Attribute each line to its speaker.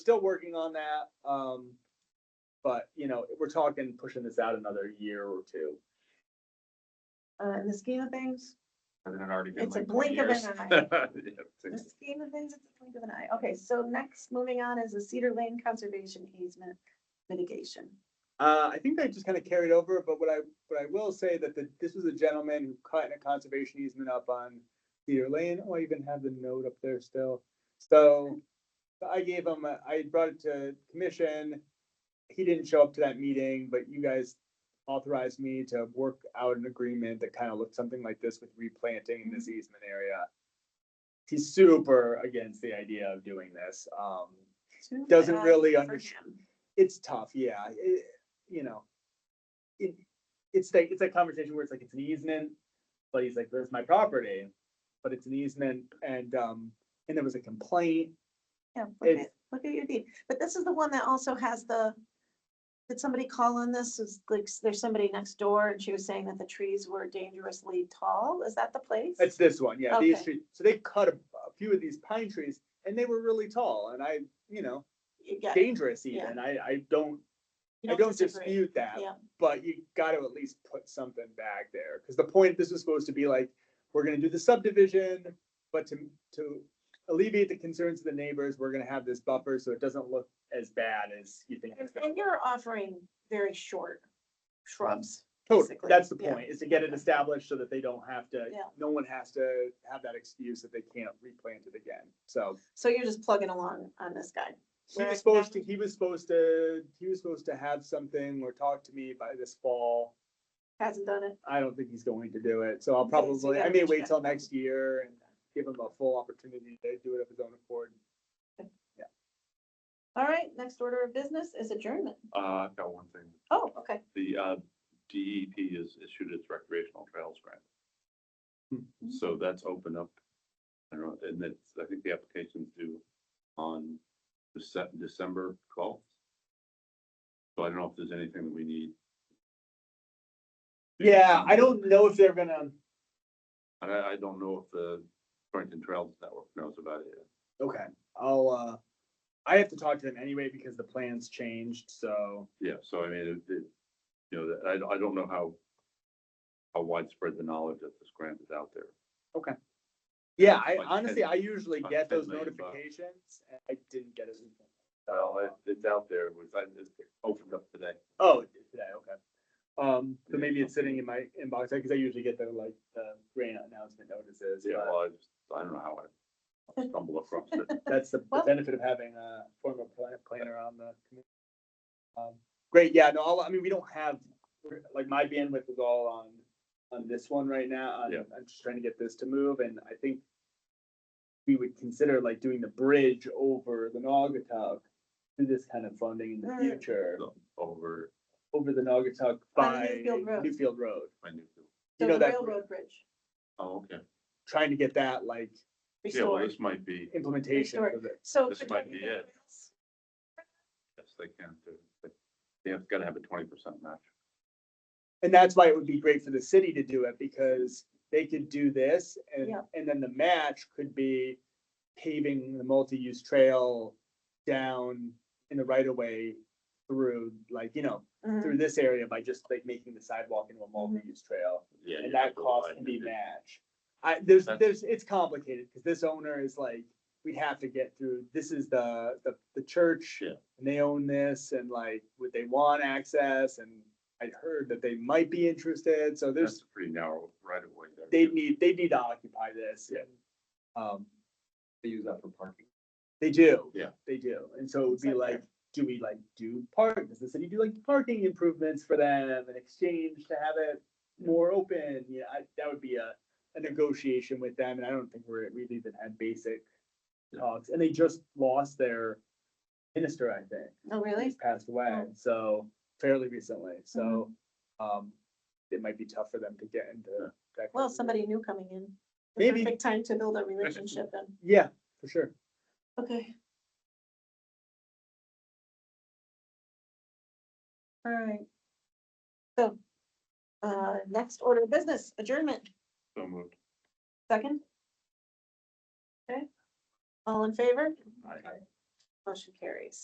Speaker 1: still working on that. Um, but you know, we're talking pushing this out another year or two.
Speaker 2: Uh, in the scheme of things,
Speaker 3: Hasn't it already been
Speaker 2: It's a
Speaker 3: like twenty
Speaker 2: blink of an
Speaker 3: years?
Speaker 2: eye.
Speaker 3: Yeah,
Speaker 2: in the
Speaker 3: it's-
Speaker 2: scheme of things, it's a blink of an eye. Okay, so next, moving on is the Cedar Lane Conservation Easement mitigation.
Speaker 1: Uh, I think they just kind of carried over, but what I, what I will say that the, this was a gentleman who cut a conservation easement up on Cedar Lane. Oh, I even have the note up there still. So I gave him, a- I brought it to commission. He didn't show up to that meeting, but you guys authorized me to work out an agreement that kind of looked something like this with replanting in this easement area. He's super against the idea of doing this. Um,
Speaker 2: Too
Speaker 1: Doesn't
Speaker 2: bad
Speaker 1: really
Speaker 2: for
Speaker 1: understand.
Speaker 2: him.
Speaker 1: it's tough, yeah, it, you know. It, it's like, it's that conversation where it's like, it's an easement, but he's like, that's my property, but it's an easement, and, um, and there was a complaint.
Speaker 2: Yeah, look at,
Speaker 1: It's-
Speaker 2: look at your deed. But this is the one that also has the, did somebody call on this? Is like, there's somebody next door and she was saying that the trees were dangerously tall. Is that the place?
Speaker 1: It's this one, yeah, these
Speaker 2: Okay.
Speaker 1: trees, so they cut a, a few of these pine trees, and they were really tall, and I, you know,
Speaker 2: Yeah,
Speaker 1: dangerous
Speaker 2: Yeah.
Speaker 1: even, I, I don't,
Speaker 2: you
Speaker 1: I don't
Speaker 2: disagree.
Speaker 1: dispute that,
Speaker 2: Yeah.
Speaker 1: but you gotta at least put something back there, because the point, this was supposed to be like, we're gonna do the subdivision, but to, to alleviate the concerns of the neighbors, we're gonna have this buffer, so it doesn't look as bad as you think.
Speaker 2: And
Speaker 1: it's gonna.
Speaker 2: and you're offering very short shrubs.
Speaker 1: Totally,
Speaker 2: basically,
Speaker 1: that's the
Speaker 2: yeah.
Speaker 1: point, is to get it established so that they don't have to,
Speaker 2: Yeah.
Speaker 1: no one has to have that excuse that they can't replant it again, so.
Speaker 2: So you're just plugging along on this guy.
Speaker 1: He
Speaker 2: Where I
Speaker 1: was supposed to,
Speaker 2: found-
Speaker 1: he was supposed to, he was supposed to have something or talk to me by this fall.
Speaker 2: Hasn't done it.
Speaker 1: I don't think he's going to do it, so I'll
Speaker 2: Okay, so you
Speaker 1: probably, I
Speaker 2: gotta
Speaker 1: may
Speaker 2: reach
Speaker 1: wait
Speaker 2: back
Speaker 1: till
Speaker 2: out.
Speaker 1: next year and give him a full opportunity to do it of his own accord.
Speaker 2: All right, next order of business is adjournment.
Speaker 3: Uh, I've got one thing.
Speaker 2: Oh, okay.
Speaker 3: The, uh, DEP has issued its recreational trails grant.
Speaker 1: Hmm.
Speaker 3: So that's open up. I don't know, and that's, I think the application's due on Dece- December twelfth. So I don't know if there's anything that we need.
Speaker 1: Yeah, I don't know if they're gonna,
Speaker 3: And I, I don't know if the Torrington Trails Network knows about it yet.
Speaker 1: okay, I'll, uh, I have to talk to them anyway because the plans changed, so.
Speaker 3: Yeah, so I mean, it, it, you know, that- I, I don't know how, how widespread the knowledge of this grant is out there.
Speaker 1: Yeah, I
Speaker 3: Like
Speaker 1: honestly,
Speaker 3: ten-
Speaker 1: I usually
Speaker 3: like
Speaker 1: get
Speaker 3: ten
Speaker 1: those
Speaker 3: million bucks.
Speaker 1: notifications, and I didn't get it.
Speaker 3: Well, it, it's out there, it was, I, it opened up today.
Speaker 1: Oh, it did today, okay. Um, so
Speaker 3: Yeah,
Speaker 1: maybe it's
Speaker 3: okay.
Speaker 1: sitting in my inbox, because I usually get the, like, the grant announcement notices,
Speaker 3: Yeah,
Speaker 1: but
Speaker 3: well, I just, I don't know how I stumbled across it.
Speaker 1: that's the the
Speaker 2: Well-
Speaker 1: benefit of having a former plan- planner on the committee. Um, Great, yeah, no, all- I mean, we don't have, we're- like, my bandwidth is all on, on this one right now. I'm,
Speaker 3: Yeah.
Speaker 1: I'm just trying to get this to move, and I think we would consider like doing the bridge over the Naugatuck through this kind of funding in the
Speaker 2: Mm.
Speaker 1: future,
Speaker 3: So, Over
Speaker 1: over the Naugatuck
Speaker 2: On
Speaker 1: by
Speaker 2: Newfield Road.
Speaker 1: Newfield Road.
Speaker 3: my new,
Speaker 1: You
Speaker 2: So
Speaker 1: know
Speaker 2: the
Speaker 1: that,
Speaker 2: railroad bridge
Speaker 3: oh, okay.
Speaker 1: trying to get that like
Speaker 3: Yeah, well,
Speaker 2: restored.
Speaker 3: this might be,
Speaker 1: implementation
Speaker 2: Restored.
Speaker 1: of it.
Speaker 2: So.
Speaker 3: this
Speaker 2: could
Speaker 3: might
Speaker 2: we
Speaker 3: be
Speaker 2: get
Speaker 3: it. yes, they can, do it, but they have, gotta have a twenty percent match.
Speaker 1: And that's why it would be great for the city to do it because they could do this and,
Speaker 2: Yeah.
Speaker 1: and then the match could be paving the multi-use trail down in the right of way through, like, you know,
Speaker 2: Mhm.
Speaker 1: through this area by just like making the sidewalk into a multi-use trail.
Speaker 3: Yeah.
Speaker 1: And
Speaker 3: you
Speaker 1: that
Speaker 3: have to
Speaker 1: cost
Speaker 3: widen
Speaker 1: can be
Speaker 3: it.
Speaker 1: matched. I, there's,
Speaker 3: That's-
Speaker 1: there's, it's complicated because this owner is like, we'd have to get through, this is the, the, the church.
Speaker 3: Yeah.
Speaker 1: And they own this and like, would they want access? And I heard that they might be interested. So there's,
Speaker 3: That's a pretty narrow right away there.
Speaker 1: they need, they need to occupy this.
Speaker 3: Yeah.
Speaker 1: Um,
Speaker 3: They use that for parking.
Speaker 1: they do.
Speaker 3: Yeah.
Speaker 1: They do. And so it would be
Speaker 2: It's like
Speaker 1: like, do we like do park, does the city do like parking improvements for them in exchange to have it more open? Yeah, I, that would be a, a negotiation with them and I don't think we're, we've even had basic
Speaker 3: Yeah.
Speaker 1: talks. And they just lost their minister, I think.
Speaker 2: Oh, really?
Speaker 1: He's passed away,
Speaker 2: Oh. Mm-hmm.
Speaker 1: so fairly recently, so, um, it might be tough for them to get into that.
Speaker 2: Well,
Speaker 1: kind of-
Speaker 2: somebody new coming in. The
Speaker 1: Maybe.
Speaker 2: Perfect time to build a relationship then.
Speaker 1: Yeah, for sure.
Speaker 2: Okay. All right. So, uh, next order of business, adjournment,
Speaker 3: So moved.
Speaker 2: second. Okay. All in favor?
Speaker 3: Aye.
Speaker 2: Motion carries.